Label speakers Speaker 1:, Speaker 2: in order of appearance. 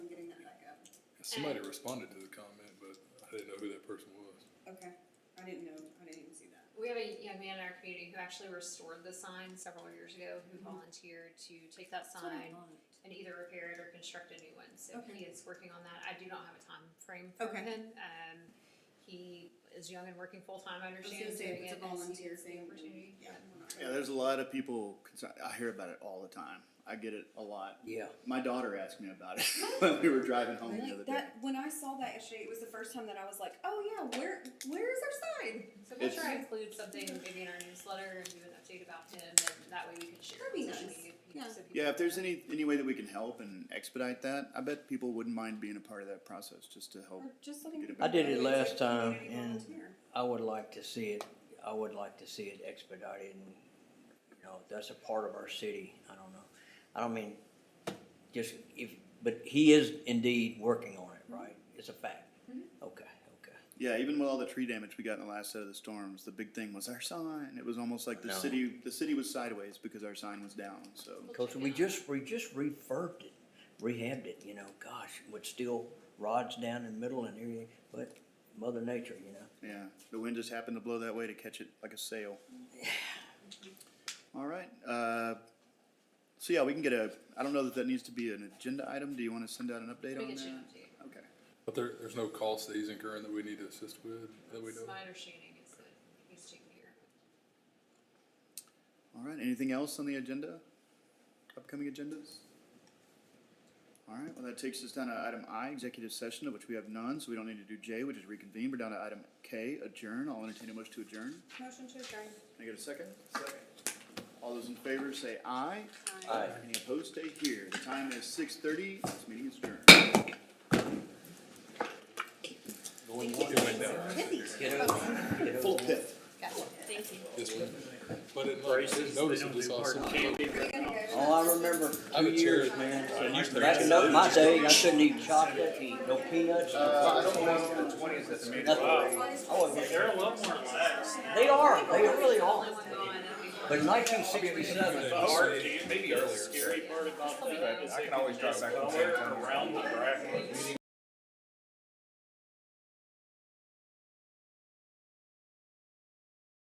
Speaker 1: Somebody responded to the comment, but I didn't know who that person was.
Speaker 2: Okay, I didn't know, I didn't even see that.
Speaker 3: We have a young man in our community who actually restored the sign several years ago, who
Speaker 2: Mm-hmm.
Speaker 3: volunteered to take that sign and either repair it or construct a new one. So
Speaker 2: Okay.
Speaker 3: he is working on that. I do not have a time frame for
Speaker 2: Okay.
Speaker 3: him. Um, he is young and working full time.
Speaker 2: I
Speaker 3: I
Speaker 2: was
Speaker 3: understand.
Speaker 2: gonna say,
Speaker 3: doing
Speaker 2: if it's a
Speaker 3: it as he
Speaker 2: volunteer
Speaker 3: gets the
Speaker 2: thing. then-
Speaker 3: Opportunity.
Speaker 2: Yeah. we're not-
Speaker 4: Yeah, there's a lot of people, concern- I hear about it all the time. I get it a lot.
Speaker 5: Yeah.
Speaker 4: My daughter asked me about it when we were driving home the other
Speaker 2: Like
Speaker 4: day.
Speaker 2: that, when I saw that yesterday, it was the first time that I was like, oh yeah, where, where is our sign?
Speaker 3: So we'll
Speaker 4: It's-
Speaker 3: try to include something
Speaker 2: Mm-hmm.
Speaker 3: maybe in our newsletter and do an update about him, and that way we can share.
Speaker 2: That'd be
Speaker 3: on social
Speaker 2: nice.
Speaker 3: media,
Speaker 2: Yeah.
Speaker 3: so people
Speaker 4: Yeah, if there's
Speaker 3: know.
Speaker 4: any, any way that we can help and expedite that, I bet people wouldn't mind being a part of that process just to help.
Speaker 2: Or just letting
Speaker 4: Get it
Speaker 2: people
Speaker 4: I
Speaker 2: know
Speaker 4: did
Speaker 2: that
Speaker 5: it
Speaker 2: it's a
Speaker 5: last time,
Speaker 2: community
Speaker 5: and-
Speaker 2: volunteer.
Speaker 5: I would like to see it, I would like to see it expedited and, you know, that's a part of our city, I don't know. I don't mean, just if, but he is indeed working on it, right? It's a fact. Okay, okay.
Speaker 4: Yeah, even with all the tree damage we got in the last set of the storms, the big thing was our sign. It was almost like the
Speaker 5: No.
Speaker 4: city, the city was sideways because our sign was down, so.
Speaker 5: Cause we just, we just refurbed it, rehabbed it, you know, gosh, with steel rods down in the middle and everything, but mother nature, you know?
Speaker 4: Yeah, the wind just happened to blow that way to catch it like a sail. All right, uh, so yeah, we can get a, I don't know that that needs to be an agenda item, do you wanna send out an update
Speaker 3: We
Speaker 4: on
Speaker 3: can share an
Speaker 4: that?
Speaker 3: update.
Speaker 4: Okay,
Speaker 1: But there, there's no cost that he's incurring that we need to assist with, that we know.
Speaker 3: It's
Speaker 1: of?
Speaker 3: my understanding is that he's taking care of it.
Speaker 4: all right, anything else on the agenda? Upcoming agendas? All right, well, that takes us down to item I, executive session, of which we have none, so we don't need to do J, which is reconvene, we're down to item K, adjourn, I'll entertain a motion to adjourn.
Speaker 2: Motion to adjourn.
Speaker 4: Can I get a second? Second. All those in favor say aye.
Speaker 5: Aye.
Speaker 4: Any opposed, stay here. The time is six thirty, this meeting is adjourned.
Speaker 1: It went down.
Speaker 5: Get over, get
Speaker 4: Full
Speaker 5: over.
Speaker 4: pit.
Speaker 2: Thank you.
Speaker 1: This one. But it, notice it just all sudden-
Speaker 5: All I remember,
Speaker 1: I have
Speaker 5: two
Speaker 1: a chair.
Speaker 5: years, man.
Speaker 1: I used to-
Speaker 5: That's enough my day, I couldn't eat chocolate, eat no peanuts, nothing. I wasn't-
Speaker 6: They're a lot more relaxed.
Speaker 5: They are, they really are.
Speaker 3: Only one gone, that'd be-
Speaker 5: But nineteen sixty-seven,
Speaker 6: The hard candy, the scary part about that is they can just lower around the bracket.